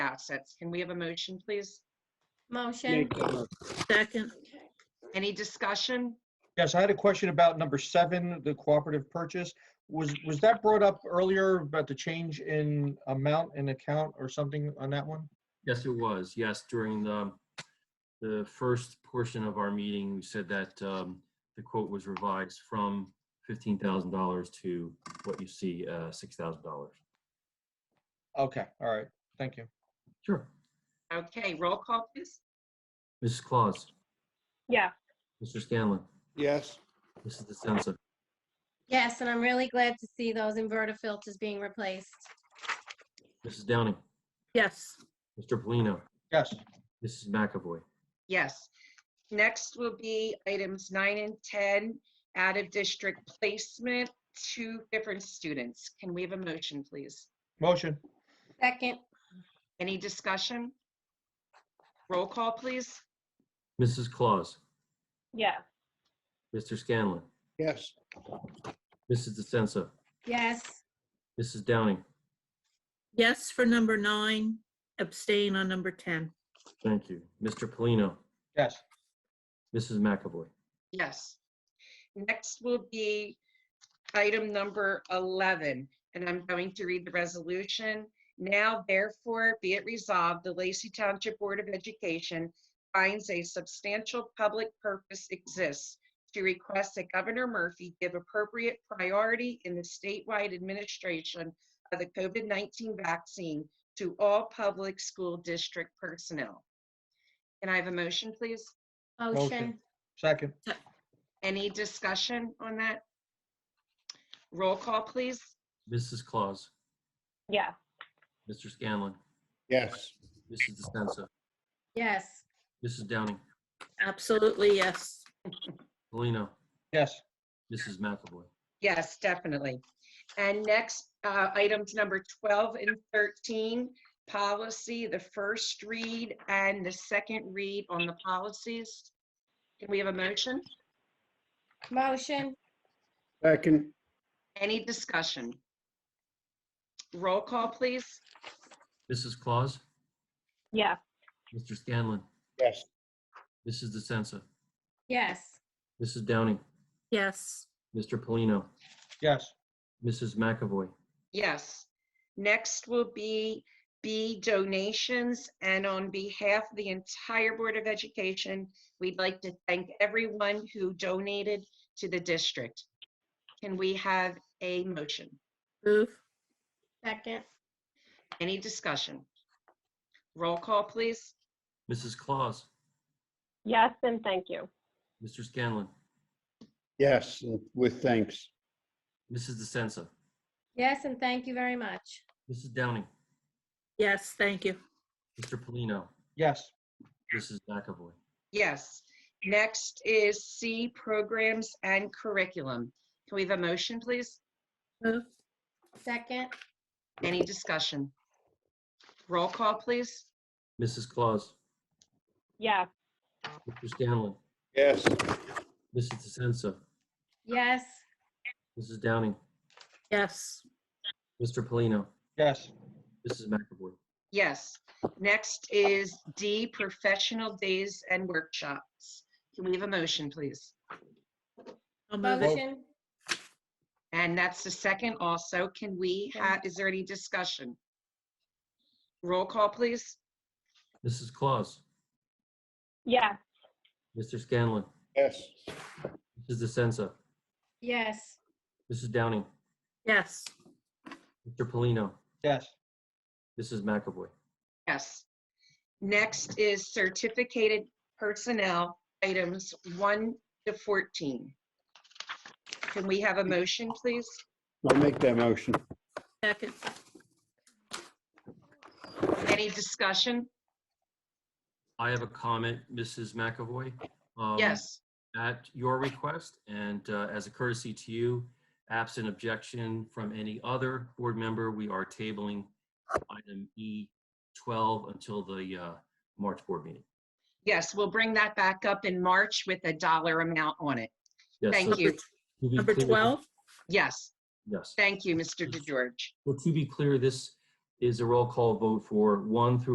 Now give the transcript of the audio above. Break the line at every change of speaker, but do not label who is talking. process. Can we have a motion, please?
Motion,
Make the motion.
Second,
Any discussion?
Yes, I had a question about number seven, the cooperative purchase. Was, was that brought up earlier about the change in amount and account or something on that one?
Yes, it was. Yes, during the, the first portion of our meeting, we said that um, the quote was revised from $15,000 to what you see, uh, $6,000.
Okay, all right, thank you.
Sure.
Okay, roll call, please.
Mrs. Claus,
yes,
Mr. Scanlon,
Yes,
Mrs. DeSenza,
yes, and I'm really glad to see those inverter filters being replaced.
Mrs. Downing,
yes.
Mr. Polino,
Yes,
Mrs. McAvoy.
Yes. Next will be items nine and 10, out-of-district placement, two different students. Can we have a motion, please?
motion,
Second,
Any discussion? Roll call, please.
Mrs. Claus,
yes,
Mr. Scanlon,
yes,
Mrs. DeSenza,
yes,
Mrs. Downing.
Yes for number nine, abstain on number 10.
Thank you. Mr. Polino,
yes,
Mrs. McAvoy.
Yes. Next will be item number 11, and I'm going to read the resolution. Now therefore be it resolved, the Lacey Township Board of Education finds a substantial public purpose exists to request that Governor Murphy give appropriate priority in the statewide administration of the COVID-19 vaccine to all public school district personnel. Can I have a motion, please?
motion,
second,
Any discussion on that? Roll call, please.
Mrs. Claus,
yes,
Mr. Scanlon,
yes,
Mrs. DeSenza,
yes,
Mrs. Downing,
Absolutely, yes.
Polino,
yes,
Mrs. McAvoy.
Yes, definitely. And next, uh, items number 12 and 13, policy, the first read and the second read on the policies. Can we have a motion?
motion,
second,
Any discussion? Roll call, please.
Mrs. Claus,
yes,
Mr. Scanlon,
yes,
Mrs. DeSenza,
yes,
Mrs. Downing,
Yes,
Mr. Polino,
yes,
Mrs. McAvoy.
Yes. Next will be B donations, and on behalf of the entire Board of Education, we'd like to thank everyone who donated to the district. Can we have a motion?
move,
second,
Any discussion? Roll call, please.
Mrs. Claus,
yes, and thank you.
Mr. Scanlon,
yes, with thanks,
Mrs. DeSenza,
yes, and thank you very much.
Mrs. Downing,
yes, thank you.
Mr. Polino,
yes,
Mrs. McAvoy.
Yes. Next is C programs and curriculum. Can we have a motion, please?
Move,
Second,
Any discussion? Roll call, please.
Mrs. Claus,
Yes,
Mr. Scanlon,
yes,
Mrs. DeSenza,
yes,
Mrs. Downing,
yes,
Mr. Polino,
yes,
Mrs. McAvoy.
Yes. Next is D, professional days and workshops. Can we have a motion, please?
I'll move it.
motion,
And that's the second also. Can we have, is there any discussion? Roll call, please.
Mrs. Claus,
yes,
Mr. Scanlon,
yes,
Mrs. DeSenza,
yes,
Mrs. Downing,
Yes,
Mr. Polino,
yes,
Mrs. McAvoy.
Yes. Next is certificated personnel, items 1 to 14. Can we have a motion, please?
I'll make that motion,
second,
Any discussion?
I have a comment, Mrs. McAvoy. Um,
Yes.
At your request and uh, as a courtesy to you, absent objection from any other board member, we are tabling item E12 until the uh, March board meeting.
Yes, we'll bring that back up in March with a dollar amount on it.
Yes,
Thank
so
you.
to be
number
clear-
12,
Yes.
Yes.
Thank you, Mr. DeGeorge.
Well, to be clear, this is a roll call vote for one through